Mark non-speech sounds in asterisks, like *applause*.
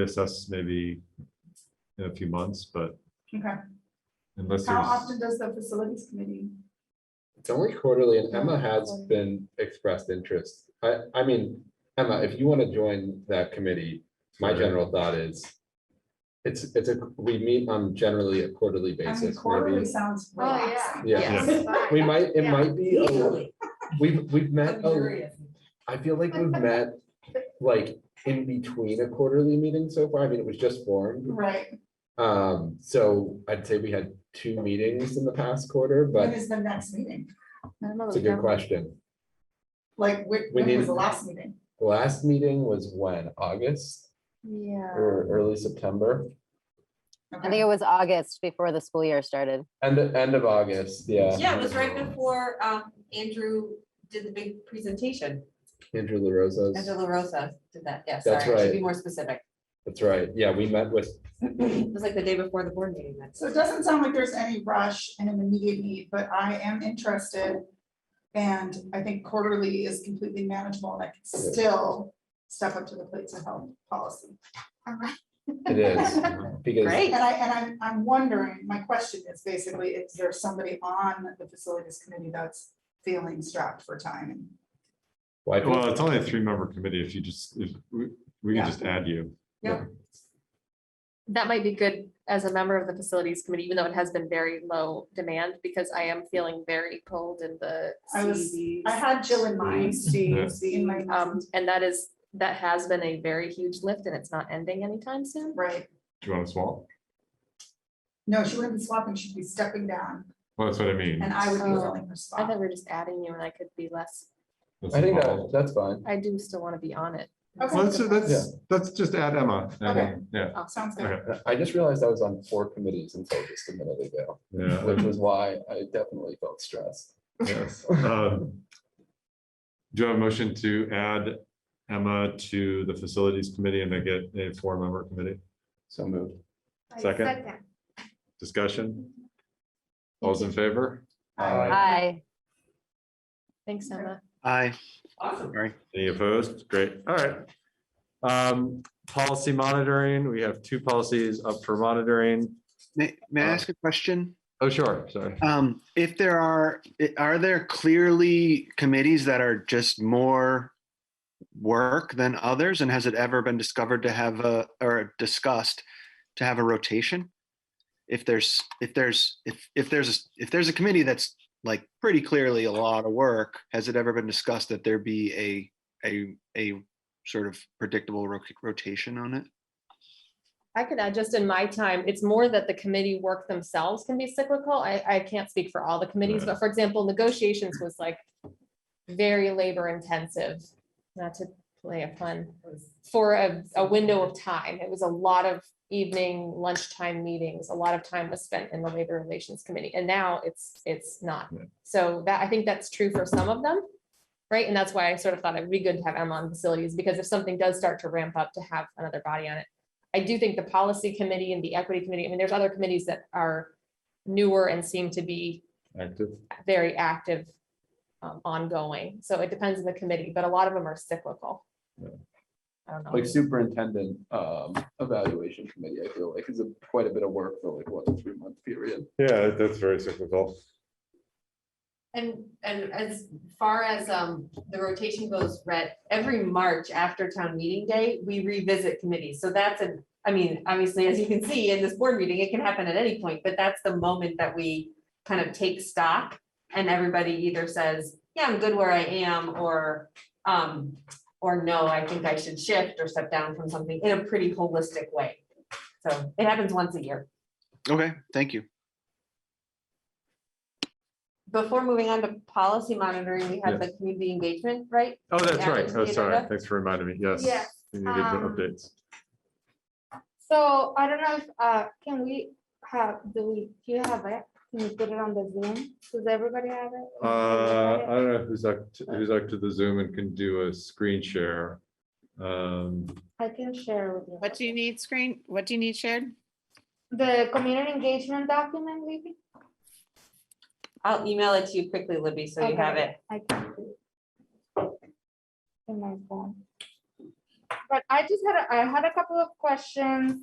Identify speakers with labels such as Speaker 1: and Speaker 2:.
Speaker 1: reassess maybe in a few months, but
Speaker 2: Okay,
Speaker 1: unless
Speaker 2: how
Speaker 1: there's,
Speaker 2: often does the facilities committee?
Speaker 3: It's only quarterly and
Speaker 2: Yeah,
Speaker 3: Emma has
Speaker 2: quarterly.
Speaker 3: been expressed interest. I, I mean, Emma, if you want to join that committee, my
Speaker 1: Sure.
Speaker 3: general thought is it's, it's a, we meet on generally a quarterly
Speaker 2: I mean,
Speaker 3: basis.
Speaker 2: quarterly
Speaker 3: maybe.
Speaker 2: sounds
Speaker 4: Oh, yeah.
Speaker 2: relaxing.
Speaker 3: Yeah.
Speaker 4: Yes.
Speaker 3: We might, it
Speaker 4: Yeah.
Speaker 3: might be, a li-
Speaker 5: Easily.
Speaker 3: we've, we've met, a-
Speaker 5: luxurious.
Speaker 3: I feel like we've met like in between a quarterly meeting so far. I mean, it was just formed.
Speaker 2: Right,
Speaker 3: Um, so I'd say we had two meetings in the past quarter,
Speaker 2: when
Speaker 3: but
Speaker 2: is the next meeting?
Speaker 3: it's a good question.
Speaker 2: Like, when,
Speaker 3: We
Speaker 2: when was
Speaker 3: need-
Speaker 2: the last meeting?
Speaker 3: The last meeting was when, August?
Speaker 4: Yeah.
Speaker 3: or early September,
Speaker 2: Okay.
Speaker 6: I think it was August before the school year started.
Speaker 3: end, end of August, yeah.
Speaker 5: Yeah, it was right before um Andrew did the big presentation.
Speaker 3: Andrew LaRosa's,
Speaker 5: Angela Rosa did that. Yeah, sorry,
Speaker 3: That's
Speaker 5: I should be
Speaker 3: right.
Speaker 5: more specific.
Speaker 3: that's right, yeah, we met with,
Speaker 5: It was like the day before the board meeting. That's
Speaker 2: So it doesn't sound like there's any rush and an immediate need, but I am interested. And I think quarterly is completely manageable and I can
Speaker 3: Yeah.
Speaker 2: still step up to the plate to help policy.
Speaker 3: it is, because,
Speaker 5: great.
Speaker 2: And I, and I'm, I'm wondering, my question is basically, is there somebody on the facilities committee that's feeling strapped for time? And
Speaker 3: well, I
Speaker 1: well,
Speaker 3: think-
Speaker 1: it's only a three-member committee if you just, if we, we
Speaker 2: Yeah.
Speaker 1: can just add you.
Speaker 7: that might be good as a member of the facilities committee, even though it has been very low demand, because I am feeling very cold in the
Speaker 2: I was-
Speaker 7: CVs.
Speaker 2: I had Jill in mind. In my
Speaker 7: Um,
Speaker 2: mind,
Speaker 7: and that is, that has been a very huge lift and it's not ending anytime soon.
Speaker 2: right,
Speaker 1: Do you want to swap?
Speaker 2: no, she wouldn't be swapping, she'd be stepping down
Speaker 1: Well, that's what I mean.
Speaker 2: and I would be
Speaker 7: Oh.
Speaker 2: filling her
Speaker 7: I thought we
Speaker 2: spot.
Speaker 7: were just adding you and I could be less,
Speaker 1: Let's
Speaker 3: I think that,
Speaker 1: evolve.
Speaker 3: that's fine.
Speaker 7: I do still want to be on it.
Speaker 2: Okay.
Speaker 1: Let's, let's, let's just add Emma. and then- Yeah,
Speaker 2: Sounds good.
Speaker 1: okay,
Speaker 3: I just realized I was on four committees until just a minute ago,
Speaker 1: yeah.
Speaker 3: which was why I definitely felt stressed. *laughs*
Speaker 1: Yes. Um, Do you have a motion to add Emma to the facilities committee and make it a four-member committee?
Speaker 3: So moved.
Speaker 1: Second. Discussion? All's in favor?
Speaker 6: Hi,
Speaker 7: Thanks, Emma.
Speaker 8: Aye.
Speaker 5: Awesome.
Speaker 8: Sorry.
Speaker 1: Any opposed? Great, all right. Um, policy monitoring, we have two policies up for monitoring.
Speaker 8: May, may I
Speaker 1: Uh,
Speaker 8: ask a question?
Speaker 1: Oh, sure, sorry.
Speaker 8: Um, if there are, i- are there clearly committees that are just more work than others? And has it ever been discovered to have a, or discussed to have a rotation? If there's, if there's, if, if there's, a s- if there's a committee that's like pretty clearly a lot of work, has it ever been discussed that there be a, a, a sort of predictable ro- rotation on it?
Speaker 7: I could add, just in my time, it's more that the committee work themselves can be cyclical. I, I can't speak for all the committees, but for example, negotiations was like very labor intensive, not to play a pun, for a, a window of time. It was a lot of evening lunchtime meetings. A lot of time was spent in the labor relations committee and now it's, it's not.
Speaker 1: Yeah.
Speaker 7: So that, I think that's true for some of them. Right? And that's why I sort of thought it would be good to have Emma on facilities because if something does start to ramp up to have another body on it. I do think the policy committee and the equity committee, I mean, there's other committees that are newer and seem to be
Speaker 1: Active.
Speaker 7: very active um, ongoing. So it depends on the committee, but a lot of them are cyclical.
Speaker 1: Yeah.
Speaker 7: I don't know.
Speaker 3: Like superintendent, um, evaluation committee, I feel like is a quite a bit of work for like what, three month period.
Speaker 1: Yeah, that's very cyclical.
Speaker 5: And and as far as um the rotation goes, Rhett, every March after town meeting day, we revisit committees. So that's an, I mean, obviously, as you can see in this board meeting, it can happen at any point, but that's the moment that we kind of take stock. And everybody either says, yeah, I'm good where I am, or um, or no, I think I should shift or step down from something in a pretty holistic way. So it happens once a year.
Speaker 8: Okay, thank you.
Speaker 5: Before moving on to policy monitoring, we have the community engagement, right?
Speaker 1: Oh, that's
Speaker 5: Yeah,
Speaker 1: right. Oh,
Speaker 5: it's
Speaker 1: sorry.
Speaker 5: Canada.
Speaker 1: Thanks for reminding me. Yes.
Speaker 9: Yes,
Speaker 1: You need to give the
Speaker 9: um,
Speaker 1: updates.
Speaker 9: So I don't know if, uh, can we have, do we, do you have it? Can you put it on the Zoom? Does everybody have it?
Speaker 1: Uh, I don't know who's up, to- who's up to the Zoom and can do a screen share. Um,
Speaker 9: I can share with you.
Speaker 10: What do you need screen? What do you need shared?
Speaker 9: The community engagement document, maybe?
Speaker 5: I'll email it to you quickly, Libby, so you have
Speaker 9: Okay.
Speaker 5: it.
Speaker 9: I can do it. In my phone. but I just had, a I had a couple of questions